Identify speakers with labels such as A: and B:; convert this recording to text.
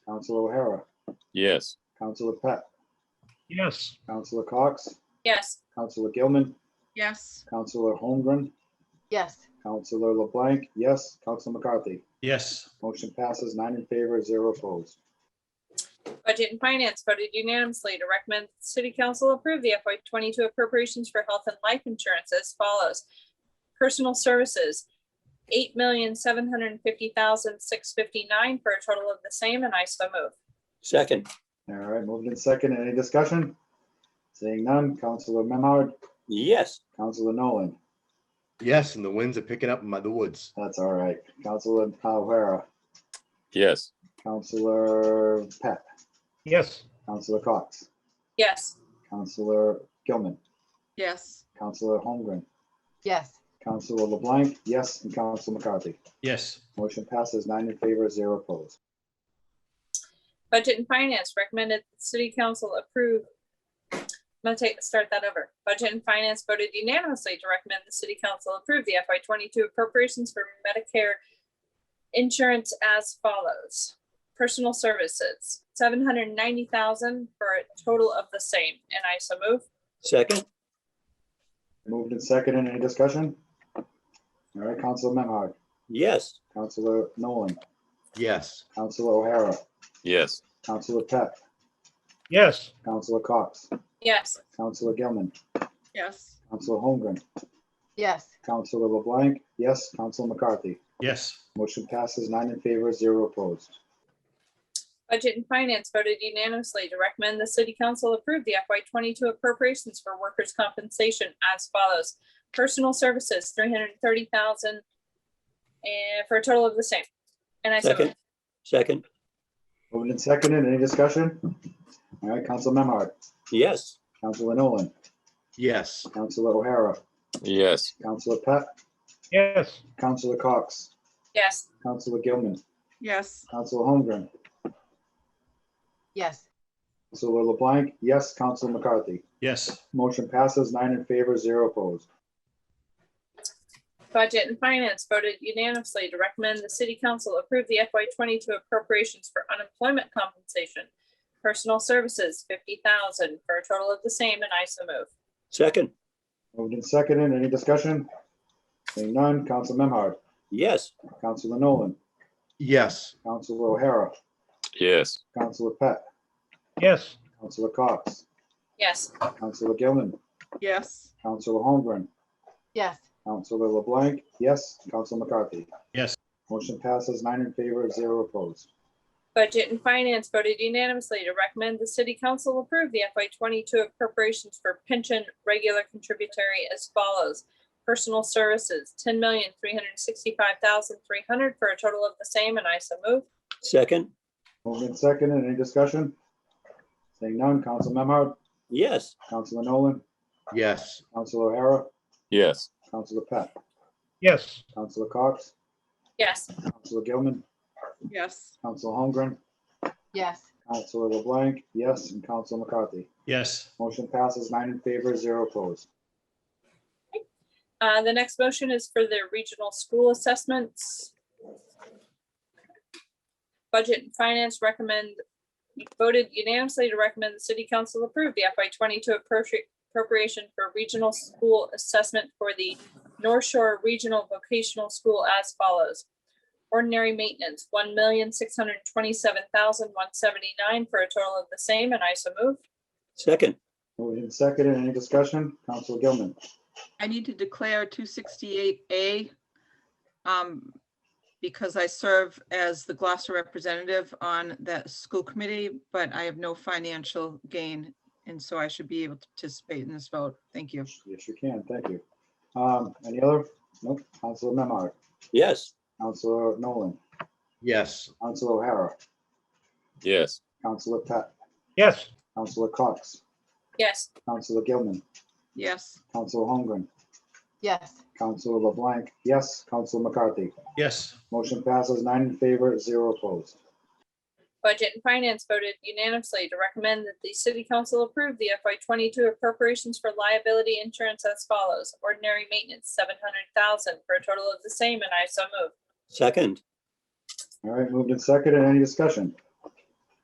A: Counselor O'Hara,
B: Yes.
A: Counselor Pat,
C: Yes.
A: Counselor Cox,
D: Yes.
A: Counselor Gilman,
D: Yes.
A: Counselor Holmgren,
E: yes,
A: Counselor LeBlanc, yes, Counselor McCarthy.
C: Yes.
A: Motion passes nine in favor, zero opposed.
D: Budget and Finance voted unanimously to recommend that the City Council approve the FY twenty-two appropriations for health and life insurance as follows. Personal Services, eight million, seven hundred and fifty thousand, six fifty-nine for a total of the same, and I so move.
F: second,
A: All right, moved in second. Any discussion? Seeing none, Counselor Memard,
F: yes,
A: Counselor Nolan,
G: Yes, and the winds are picking up in my- the woods.
A: that's all right. Counselor O'Hara,
B: Yes.
A: Counselor Pat,
C: Yes.
A: Counselor Cox,
D: Yes.
A: Counselor Gilman,
E: yes,
A: Counselor Holmgren,
E: yes,
A: Counselor LeBlanc, yes, and Counselor McCarthy.
C: Yes.
A: Motion passes nine in favor, zero opposed.
D: Budget and Finance recommended that the City Council approve. I'm gonna take, start that over. Budget and Finance voted unanimously to recommend the City Council approve the FY twenty-two appropriations for Medicare insurance as follows. Personal Services, seven hundred and ninety thousand for a total of the same, and I so move.
F: second,
A: Moved in second. Any discussion? All right, Counselor Memard,
F: yes,
A: Counselor Nolan,
G: Yes,
A: Counselor O'Hara,
B: Yes.
A: Counselor Pat,
C: Yes.
A: Counselor Cox,
D: Yes,
A: Counselor Gilman,
E: yes,
A: Counselor Holmgren,
E: yes,
A: Counselor LeBlanc, yes, Counselor McCarthy.
C: Yes.
A: Motion passes nine in favor, zero opposed.
D: Budget and Finance voted unanimously to recommend the City Council approve the FY twenty-two appropriations for workers' compensation as follows. Personal Services, three hundred and thirty thousand and for a total of the same. And I so
F: Second. second,
A: Moved in second. Any discussion? All right, Counselor Memard,
F: yes,
A: Counselor Nolan,
G: yes,
A: Counselor O'Hara,
B: Yes.
A: Counselor Pat,
C: Yes.
A: Counselor Cox,
D: yes,
A: Counselor Gilman,
E: yes,
A: Counselor Holmgren,
E: yes,
A: Counselor LeBlanc, yes, Counselor McCarthy.
C: Yes.
A: Motion passes nine in favor, zero opposed.
D: Budget and Finance voted unanimously to recommend the City Council approve the FY twenty-two appropriations for unemployment compensation. Personal Services, fifty thousand for a total of the same, and I so move.
F: second,
A: Moved and seconded. Any discussion? Seeing none, Counsel Memhard,
F: yes,
A: Counselor Nolan,
G: yes,
A: Counselor O'Hara,
B: Yes.
A: Counselor Pat,
C: Yes.
A: Counselor Cox,
D: Yes,
A: Counselor Gilman,
E: yes,
A: Counselor Holmgren,
E: yes,
A: Counselor LeBlanc, yes, Counselor McCarthy.
C: Yes.
A: Motion passes nine in favor, zero opposed.
D: Budget and Finance voted unanimously to recommend the City Council approve the FY twenty-two appropriations for pension regular contributory as follows. Personal Services, ten million, three hundred and sixty-five thousand, three hundred for a total of the same, and I so move.
F: second,
A: Moved and seconded. Any discussion? Seeing none, Counsel Memhard,
F: yes,
A: Counselor Nolan,
G: yes,
A: Counselor O'Hara,
B: Yes.
A: Counselor Pat,
C: Yes.
A: Counselor Cox,
D: Yes,
A: Counselor Gilman,
E: yes,
A: Counselor Holmgren,
E: yes,
A: Counselor LeBlanc, yes, and Counselor McCarthy.
C: Yes.
A: Motion passes nine in favor, zero opposed.
D: uh, the next motion is for the regional school assessments. Budget and Finance recommend, voted unanimously to recommend the City Council approve the FY twenty-two appropri- appropriation for regional school assessment for the North Shore Regional Vocational School as follows. Ordinary maintenance, one million, six hundred and twenty-seven thousand, one seventy-nine for a total of the same, and I so move.
F: second,
A: Moved and seconded. Any discussion? Counselor Gilman.
E: I need to declare two sixty-eight A. Um, because I serve as the Gloucester representative on that school committee, but I have no financial gain. And so I should be able to participate in this vote. Thank you.
A: Yes, you can. Thank you. Um, any other? Nope. Counselor Memard,
F: yes,
A: Counselor Nolan,
G: yes,
A: Counselor O'Hara,
B: Yes.
A: Counselor Pat,
C: Yes.
A: Counselor Cox,
D: Yes,
A: Counselor Gilman,
E: Yes,
A: Counselor Holmgren,
E: yes,
A: Counselor LeBlanc, yes, Counselor McCarthy.
C: Yes.
A: Motion passes nine in favor, zero opposed.
D: Budget and Finance voted unanimously to recommend that the City Council approve the FY twenty-two appropriations for liability insurance as follows. Ordinary maintenance, seven hundred thousand for a total of the same, and I so move.
F: second,
A: All right, moved and seconded. Any discussion?